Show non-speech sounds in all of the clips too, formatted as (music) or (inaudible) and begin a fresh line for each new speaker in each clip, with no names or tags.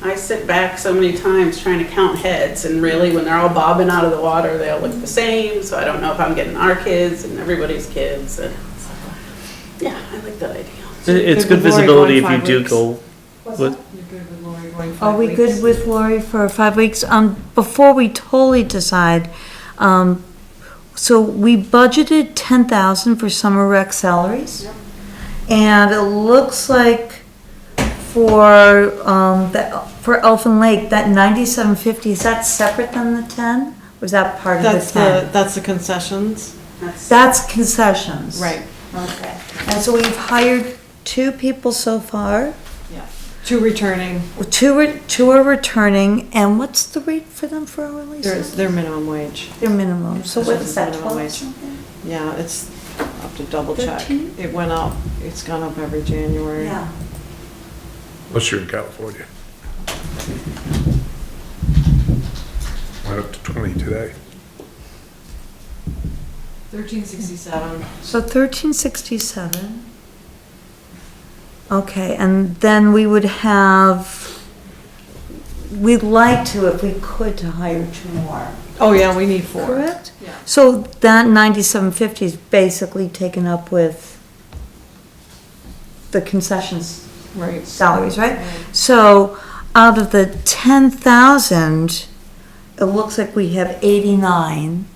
I sit back so many times trying to count heads, and really, when they're all bobbing out of the water, they all look the same, so I don't know if I'm getting our kids and everybody's kids, and, yeah, I like that idea.
It- It's
Good
good
with
visibility
Lori
if
going
you
five
do
weeks.
go,
What's
What-
that? You're good with Lori going
Are
five
we good
weeks?
with Lori for five weeks? Um, before we totally decide, um, so we budgeted ten thousand for summer rec salaries. And it looks like for, um, the, for Elfin Lake, that ninety-seven fifty, is that separate than the ten? Or is that part of the
That's the,
ten?
that's the concessions,
That's-
That's concessions.
right,
Okay. And so we've hired two people so far.
yeah. Two returning,
Two, re- two are returning, and what's the rate for them for hourly?
their, their minimum wage.
Their minimum, so what is that,
Minimum
twelve
wage.
something?
Yeah, it's, I'll have to double check.
Thirteen?
It went up, it's gone up every January.
Yeah,
Unless you're in California. Went up to 20 today.
Thirteen sixty-seven.
so thirteen sixty-seven. Okay, and then we would have, we'd like to, if we could, to hire two more,
Oh, yeah, we need four.
correct?
Yeah.
So that ninety-seven fifty is basically taken up with the concessions
Right.
salaries, right? So out of the ten thousand, it looks like we have eighty-nine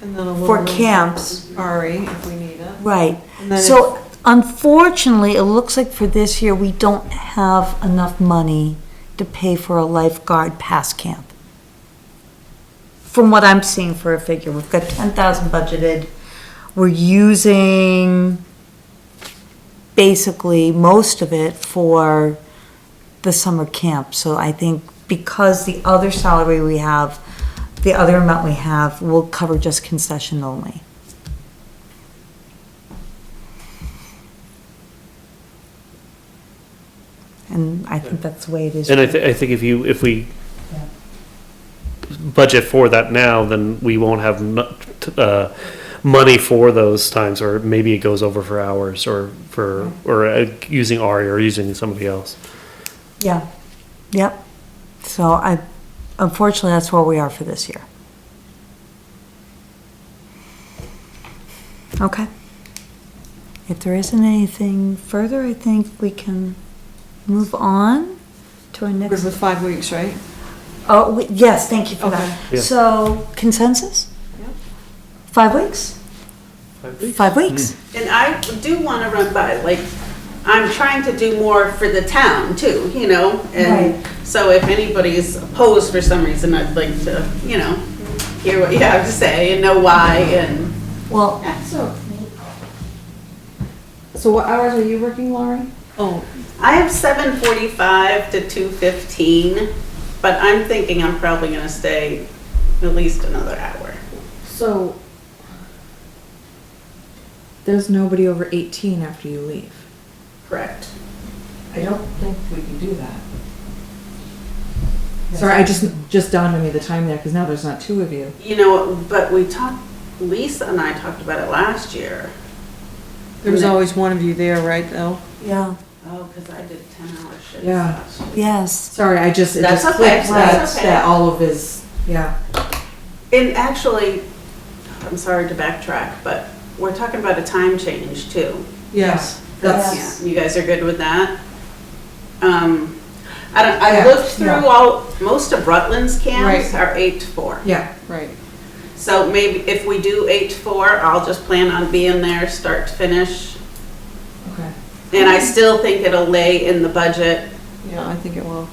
And then a little.
for camps.
Ari, if we need it.
Right.
And then
So unfortunately, it looks like for this year, we don't have enough money to pay for a lifeguard pass camp. From what I'm seeing for a figure, we've got ten thousand budgeted. We're using basically most of it for the summer camp. So I think because the other salary we have, the other amount we have will cover just concession only. And I think that's the way it is.
and I, thi- I think if you, if we
Yeah.
budget for that now, then we won't have nu- t- uh, money for those times, or maybe it goes over for hours, or for, or uh, using Ari or using somebody else.
Yeah, yep. So I, unfortunately, that's where we are for this year. Okay. If there isn't anything further, I think we can move on to our
Good
next.
with five weeks, right?
Oh, we- yes, thank you for
Okay.
that.
Yeah.
So consensus?
Yeah.
Five weeks? Five weeks?
Hmm.
And I do want to run by, like, I'm trying to do more for the town too, you know? And
Right.
so if anybody's opposed for some reason, I'd like to, you know, hear what you have to say and know why and,
Well,
So, so what hours are you working, Laurie?
Oh,
I have seven forty-five to two fifteen, but I'm thinking I'm probably gonna stay at least another hour.
So, there's nobody over 18 after you leave.
Correct.
I don't think we can do that. Sorry, I just, just dawned on me the time there, because now there's not two of you.
You know, but we talked, Lisa and I talked about it last year.
there was always one of you there, right, though?
yeah,
Oh, because I did ten-hour shifts
Yeah.
last year.
yes.
Sorry, I just, it
That's
just
okay,
clicked that,
that's okay.
that all of his, yeah.
And actually, I'm sorry to backtrack, but we're talking about a time change too.
Yes.
That's,
Yeah, You guys are good with that? Um, I don't, I
Yeah,
looked through
yeah.
all, most of Rutland's camps
Right.
are eight to four.
yeah,
Right.
So maybe if we do eight to four, I'll just plan on being there, start to finish.
okay,
And I still think it'll lay in the budget
Yeah, I think it will.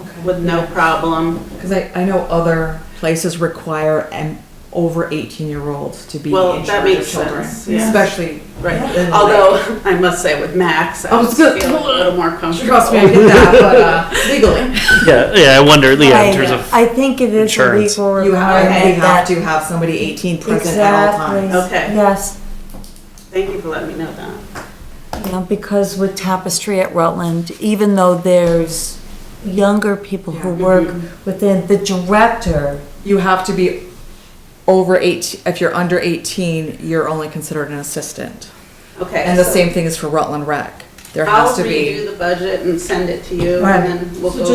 okay.
with no problem.
Because I, I know other places require an over 18-year-old to be
Well, that
in charge of
makes
children.
sense, yeah.
Especially
Right,
Yeah.
although (laughs) I must say with Max, I
I
feel
was
a
gonna-
little more comfortable.
Trust me, I get that, but uh, (laughs) legally,
Yeah, yeah, I wonder, yeah,
I-
in terms of,
I think it is a
insurance.
legal
you have, you
requirement
have
that.
to have somebody 18 present at all
Exactly.
times.
Okay.
Yes.
Thank you for letting me know that.
You know, because with Tapestry at Rutland, even though there's younger people who
Yeah.
work within, the director,
You have to be over 18, if you're under 18, you're only considered an assistant.
Okay.
And the
so
same thing is for Rutland Rec. There
I'll
has to be.
redo the budget and send it to you
Right.
and then we'll
So
go.
just